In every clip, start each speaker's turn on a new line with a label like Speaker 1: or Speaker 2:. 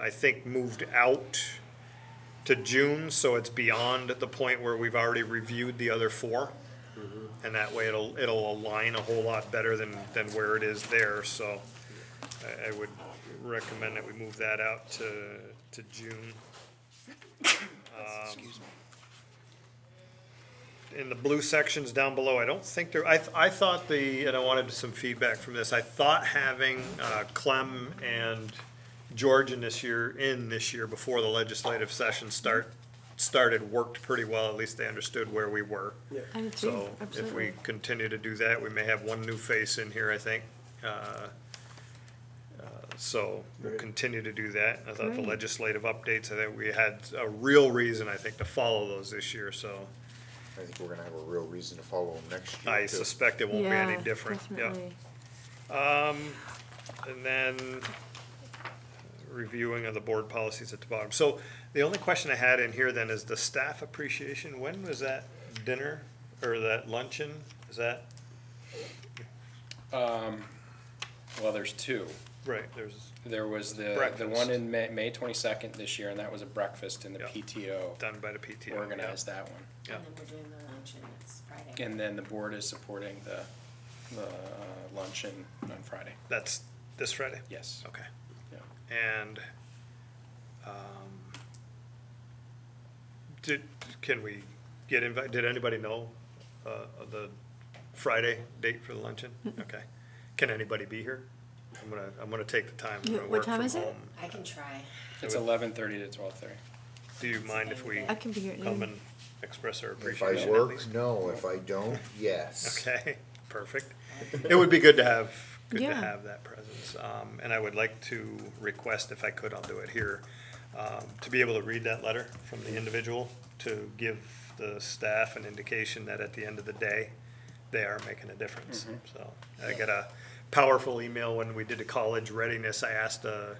Speaker 1: I think, moved out to June, so it's beyond the point where we've already reviewed the other four. And that way it'll, it'll align a whole lot better than, than where it is there, so I, I would recommend that we move that out to, to June. in the blue sections down below, I don't think there, I, I thought the, and I wanted some feedback from this, I thought having, uh, Clem and George in this year, in this year, before the legislative session start, started, worked pretty well, at least they understood where we were.
Speaker 2: I do too,
Speaker 1: So if we
Speaker 2: absolutely.
Speaker 1: continue to do that, we may have one new face in here, I think. Uh, uh, So we'll
Speaker 3: Great.
Speaker 1: continue to do that. I thought the
Speaker 2: Great.
Speaker 1: legislative updates, I think we had a real reason, I think, to follow those this year, so
Speaker 4: I think we're gonna have a real reason to follow them next year.
Speaker 1: I
Speaker 4: too.
Speaker 1: suspect it won't be
Speaker 2: Yeah,
Speaker 1: any different. Yeah.
Speaker 2: definitely.
Speaker 1: And then reviewing of the board policies at the bottom. So the only question I had in here then is the staff appreciation. When was that dinner or that luncheon? Is that,
Speaker 5: Well, there's two.
Speaker 1: right, there's,
Speaker 5: There was the,
Speaker 1: Breakfast.
Speaker 5: the one in May, May twenty-second this year, and that was a breakfast in the
Speaker 1: Yeah.
Speaker 5: PTO
Speaker 1: done by the PTO. yeah.
Speaker 5: organized that one.
Speaker 1: Yeah.
Speaker 6: And then we're doing the luncheon, it's Friday.
Speaker 5: And then the board is supporting the, the uh, luncheon on Friday.
Speaker 1: That's this Friday?
Speaker 5: Yes.
Speaker 1: Okay.
Speaker 5: Yeah.
Speaker 1: And, um, did, can we get invited, did anybody know, uh, of the Friday date for the luncheon? Okay. Can anybody be here? I'm gonna, I'm gonna take the time. I'm
Speaker 2: Yeah,
Speaker 1: gonna
Speaker 2: what
Speaker 1: work
Speaker 2: time
Speaker 1: from
Speaker 2: is it?
Speaker 1: home.
Speaker 6: I can try.
Speaker 5: It's
Speaker 1: So-
Speaker 5: eleven thirty to twelve thirty.
Speaker 1: Do you mind if we
Speaker 2: I can be here at
Speaker 1: come
Speaker 2: noon.
Speaker 1: and express our
Speaker 4: If
Speaker 1: appreciation
Speaker 4: I
Speaker 1: at
Speaker 4: work,
Speaker 1: least?
Speaker 4: no, if I don't, yes.
Speaker 1: Okay, perfect. It would be good to have, good to
Speaker 2: Yeah.
Speaker 1: have that presence. Um, and I would like to request, if I could, I'll do it here, um, to be able to read that letter from the individual, to give the staff an indication that at the end of the day, they are making a difference. So I got a powerful email when we did the college readiness. I asked a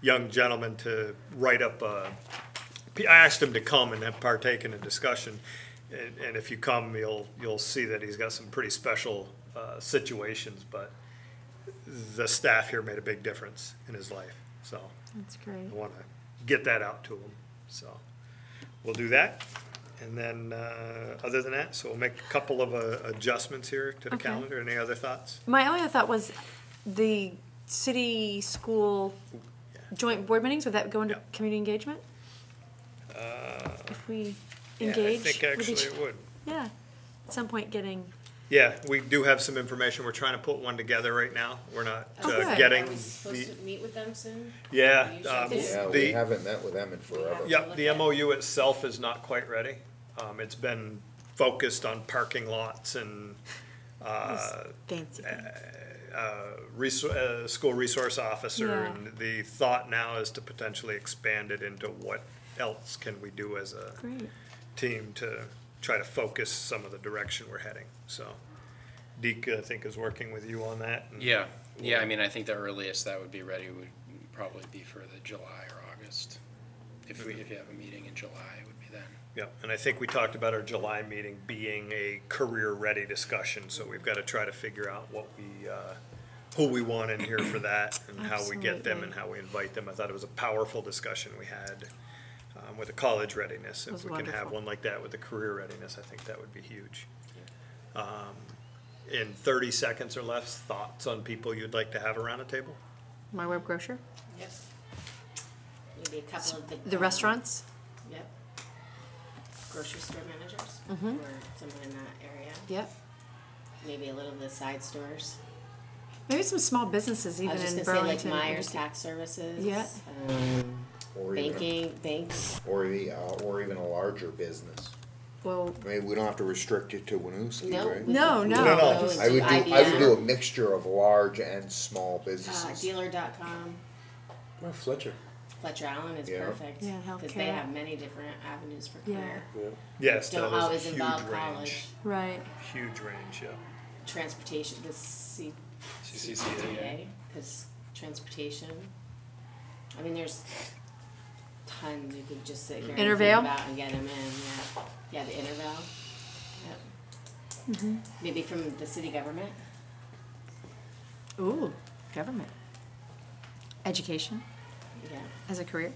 Speaker 1: young gentleman to write up a I asked him to come and have partake in a discussion, and, and if you come, you'll, you'll see that he's got some pretty special, uh, situations, but the staff here made a big difference in his life, so
Speaker 2: That's great.
Speaker 1: I wanna get that out to him, so we'll do that. And then, uh, other than that, so we'll make a couple of, uh, adjustments here to the
Speaker 2: Okay.
Speaker 1: calendar. Any other thoughts?
Speaker 2: My only other thought was the city school joint board meetings, would that go into
Speaker 1: Yeah. Uh,
Speaker 2: community engagement? If we
Speaker 1: Yeah,
Speaker 2: engage
Speaker 1: I think
Speaker 2: with
Speaker 1: actually
Speaker 2: each,
Speaker 1: it would.
Speaker 2: yeah, at some point getting,
Speaker 1: Yeah, we do have some information. We're trying to put one together right now. We're not,
Speaker 6: I was-
Speaker 1: uh,
Speaker 2: Okay.
Speaker 1: getting
Speaker 6: I was
Speaker 1: the,
Speaker 6: supposed to meet with them soon.
Speaker 1: yeah.
Speaker 6: Usually
Speaker 1: um,
Speaker 6: it's-
Speaker 4: Yeah,
Speaker 1: the-
Speaker 4: we haven't met with them in forever.
Speaker 6: Yeah.
Speaker 1: Yep, the MOU itself is not quite ready. Um, it's been focused on parking lots and, uh,
Speaker 2: fancy things.
Speaker 1: resou- uh, school resource officer.
Speaker 2: Yeah.
Speaker 1: And the thought now is to potentially expand it into what else can we do as a
Speaker 2: Great,
Speaker 1: team to try to focus some of the direction we're heading, so. Deke, I think, is working with you on that. and-
Speaker 5: Yeah, yeah, I mean, I think the earliest that would be ready would probably be for the July or August. If we, if you have a meeting in July, it would be then.
Speaker 1: Yeah, and I think we talked about our July meeting being a career-ready discussion, so we've gotta try to figure out what we, uh, who we want in here for that, and how we get them and
Speaker 2: Absolutely.
Speaker 1: how we invite them. I thought it was a powerful discussion we had, um, with the college readiness.
Speaker 2: It was
Speaker 1: If we can have
Speaker 2: wonderful.
Speaker 1: one like that with the career readiness, I think that would be huge. Um, in thirty seconds or less, thoughts on people you'd like to have around a table?
Speaker 2: my web grocer,
Speaker 6: Yep. Maybe a couple of the.
Speaker 2: the
Speaker 6: um,
Speaker 2: restaurants,
Speaker 6: Yep. Grocery store managers. Mm-hmm. Or someone in that area.
Speaker 2: yep.
Speaker 6: Maybe a little of the side stores.
Speaker 2: Maybe some small businesses
Speaker 6: I
Speaker 2: even
Speaker 6: was just
Speaker 2: in
Speaker 6: gonna say like
Speaker 2: Burlington.
Speaker 6: Myers Tax Services.
Speaker 2: Yeah.
Speaker 6: um,
Speaker 4: Or even,
Speaker 6: Banking, banks.
Speaker 4: or the, uh, or even a larger business.
Speaker 2: Well,
Speaker 4: I mean, we don't have to restrict it to Winooski,
Speaker 6: No.
Speaker 4: right?
Speaker 6: we
Speaker 2: No,
Speaker 6: could- we
Speaker 2: no.
Speaker 6: could
Speaker 1: No,
Speaker 6: go
Speaker 1: no.
Speaker 6: into
Speaker 4: I would do, I would do a
Speaker 6: IBM,
Speaker 4: mixture of large and small
Speaker 6: Uh,
Speaker 4: businesses.
Speaker 6: dealer.com.
Speaker 3: Well, Fletcher.
Speaker 6: Fletcher Allen is
Speaker 4: Yeah.
Speaker 6: perfect.
Speaker 2: Yeah,
Speaker 6: Because they
Speaker 2: healthcare.
Speaker 6: have many different avenues for
Speaker 2: Yeah.
Speaker 6: career.
Speaker 3: Yeah.
Speaker 1: Yes, that
Speaker 6: Don't
Speaker 1: was a
Speaker 6: always
Speaker 1: huge
Speaker 6: involve
Speaker 1: range,
Speaker 6: college.
Speaker 2: right,
Speaker 1: huge range, yeah.
Speaker 6: Transportation, the C-
Speaker 5: CCCTA.
Speaker 6: CCTA, because transportation. I mean, there's tons you could just sit here and think
Speaker 2: Intervale?
Speaker 6: about and get them in, yeah. Yeah, the Intervale. Yep. Maybe from the city government.
Speaker 2: ooh, government. Education,
Speaker 6: yeah.
Speaker 2: as a career?